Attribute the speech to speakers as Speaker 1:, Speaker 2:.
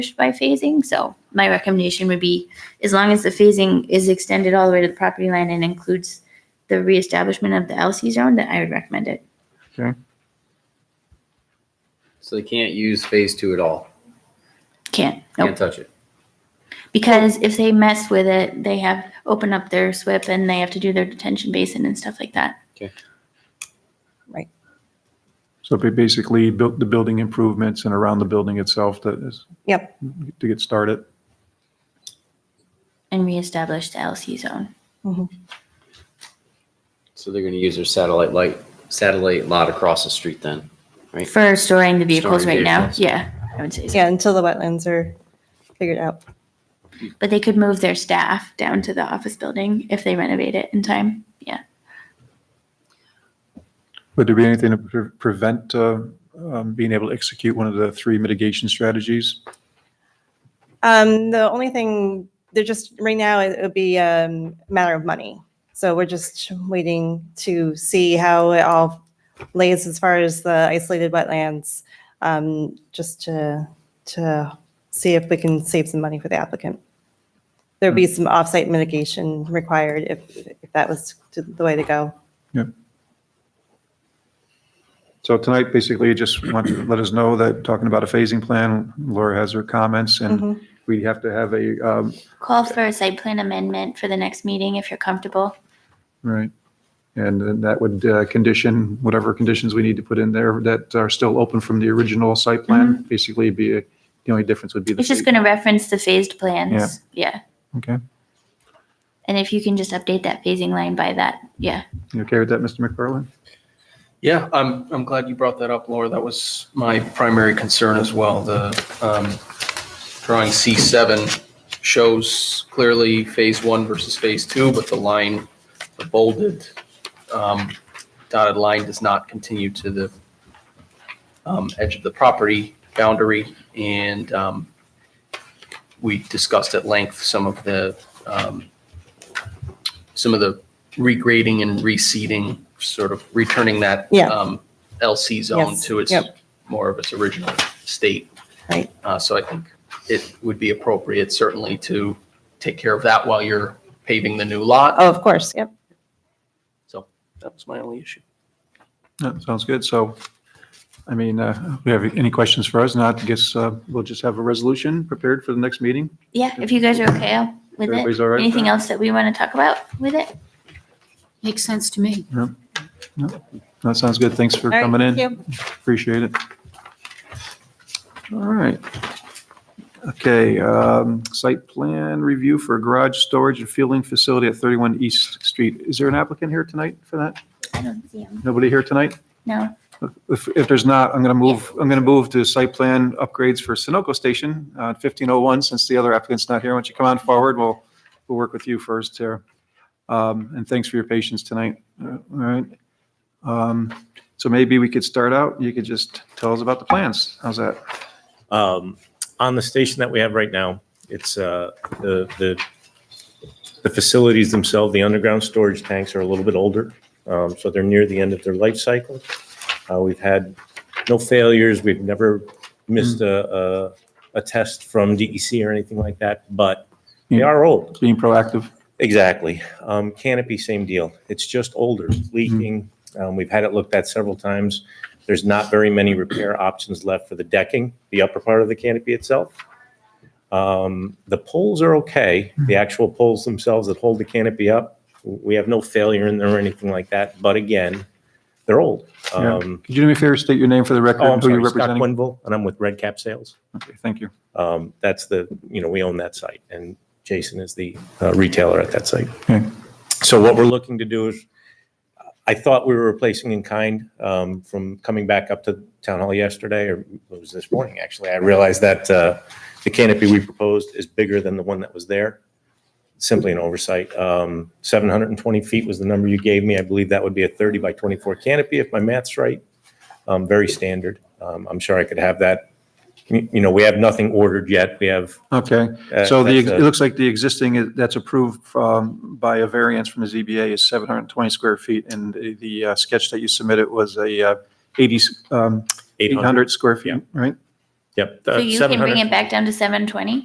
Speaker 1: accomplished by phasing. So my recommendation would be, as long as the phasing is extended all the way to the property line and includes the reestablishment of the LC zone, then I would recommend it.
Speaker 2: So they can't use phase two at all.
Speaker 1: Can't,
Speaker 2: Can't
Speaker 1: nope.
Speaker 2: touch it.
Speaker 1: Because if they mess with it, they have, open up their SWIP and they have to do their detention basin and stuff like that.
Speaker 3: So ba- basically, built the building improvements and around the building itself that is.
Speaker 4: Yep.
Speaker 3: To get started.
Speaker 1: And reestablish the LC zone.
Speaker 2: So they're going to use their satellite light, satellite lot across the street then.
Speaker 1: For storing the vehicles
Speaker 2: Storing
Speaker 1: right now,
Speaker 2: vehicles.
Speaker 1: yeah, I would say so.
Speaker 4: Yeah, until the wetlands are figured out.
Speaker 1: But they could move their staff down to the office building if they renovate it in time. Yeah.
Speaker 3: Would there be anything to pre- prevent uh, um, being able to execute one of the three mitigation strategies?
Speaker 4: Um, the only thing, they're just, right now, it would be um, a matter of money. So we're just waiting to see how it all lays as far as the isolated wetlands, um, just to, to see if we can save some money for the applicant. There'd
Speaker 3: Hmm.
Speaker 4: be some off-site mitigation required if, if that was the way to go.
Speaker 3: So tonight, basically, you just want to let us know that, talking about a phasing plan, Laura has her comments,
Speaker 1: Mm-hmm.
Speaker 3: and
Speaker 4: Mhm.
Speaker 3: we have to have a, um,
Speaker 1: Call for a site plan amendment for the next meeting if you're comfortable.
Speaker 3: right. And then that would uh, condition, whatever conditions we need to put in there that are still open from the original site plan, basically be, a- the only difference would be the.
Speaker 1: Mm-hmm. It's just
Speaker 3: phase.
Speaker 1: going to reference the phased plans. Yeah.
Speaker 3: Okay.
Speaker 1: And if you can just update that phasing line by that, yeah.
Speaker 3: You okay with that, Mr. McFarland?
Speaker 5: Yeah, I'm, I'm glad you brought that up, Laura. That was my primary concern as well. The um, drawing C7 shows clearly phase one versus phase two, but the line, the bolded um, dotted line does not continue to the um, edge of the property boundary. And um, we discussed at length some of the, um, some of the regrading and reseeding, sort of returning that
Speaker 4: Yeah.
Speaker 5: um, LC zone
Speaker 4: Yes,
Speaker 5: to its,
Speaker 4: yep.
Speaker 5: more of its original state.
Speaker 4: Right.
Speaker 5: Uh, So I think it would be appropriate certainly to take care of that while you're paving the new lot.
Speaker 4: Oh, of course, yep.
Speaker 5: So that was my only issue.
Speaker 3: That sounds good. So, I mean, uh, we have any questions for us? Not, I guess uh, we'll just have a resolution prepared for the next meeting.
Speaker 1: Yeah. If you guys are okay I'll- with it.
Speaker 3: Everybody's all right? with
Speaker 1: Anything
Speaker 3: that?
Speaker 1: else that we want to talk about with it?
Speaker 6: Makes sense to me.
Speaker 3: That sounds good. Thanks for
Speaker 4: All right,
Speaker 3: coming
Speaker 4: thank
Speaker 3: in.
Speaker 4: you.
Speaker 3: Appreciate it. All right. Okay, um, site plan review for garage storage and fueling facility at 31 East Street. Is there an applicant here tonight for that?
Speaker 1: I don't see them.
Speaker 3: Nobody here tonight?
Speaker 1: No.
Speaker 3: If, if there's not, I'm going to move, I'm going to move to site plan upgrades for Sunoco Station, uh, 1501, since the other applicant's not here. Why don't you come on forward? We'll, we'll work with you first here. Um, And thanks for your patience tonight. Uh, All right. Um, So maybe we could start out, you could just tell us about the plans. How's that?
Speaker 7: um, on the station that we have right now. It's uh, the the the facilities themselves, the underground storage tanks are a little bit older, um, so they're near the end of their life cycle. Uh, We've had no failures. We've never missed a a- a test from DEC or anything like that, but they
Speaker 3: Yeah.
Speaker 7: are old.
Speaker 3: Being proactive.
Speaker 7: Exactly. Um, canopy, same deal. It's just older,
Speaker 3: Mm-hmm.
Speaker 7: It's leaking. Um, we've had it looked at several times. There's not very many repair options left for the decking, the upper part of the canopy itself. Um, the poles are okay.
Speaker 3: Mm-hmm.
Speaker 7: The actual poles themselves that hold the canopy up, we have no failure in there or anything like that. But again, they're old.
Speaker 3: Yeah.
Speaker 7: Um,
Speaker 3: Could you do me a favor, state your name for the record?
Speaker 7: oh, I'm
Speaker 3: and who you're
Speaker 7: sorry, Scott
Speaker 3: representing?
Speaker 7: Quinville, and I'm with Red Cap Sales.
Speaker 3: Okay, Thank you.
Speaker 7: Um, that's the, you know, we own that site and Jason is the uh, retailer at that site.
Speaker 3: Okay.
Speaker 7: So what we're looking to do is, I thought we were replacing in kind, um, from coming back up to town hall yesterday, or it was this morning, actually. I realized that, uh, the canopy we proposed is bigger than the one that was there. Simply an oversight. Um, seven hundred and twenty feet was the number you gave me. I believe that would be a thirty by twenty-four canopy if my math's right. Um, very standard. Um, I'm sure I could have that you you know, we have nothing ordered yet. We have.
Speaker 3: Okay,
Speaker 7: uh,
Speaker 3: so the,
Speaker 7: that's
Speaker 3: it
Speaker 7: a-
Speaker 3: looks like the existing is- that's approved um, by a variance from the ZBA is 720 square feet, and the- the uh, sketch that you submitted was a uh, 80, um, 800 square
Speaker 7: Yeah.
Speaker 3: feet, right?
Speaker 7: Yep. uh,
Speaker 1: So you can
Speaker 7: 700
Speaker 1: bring it back down to seven twenty?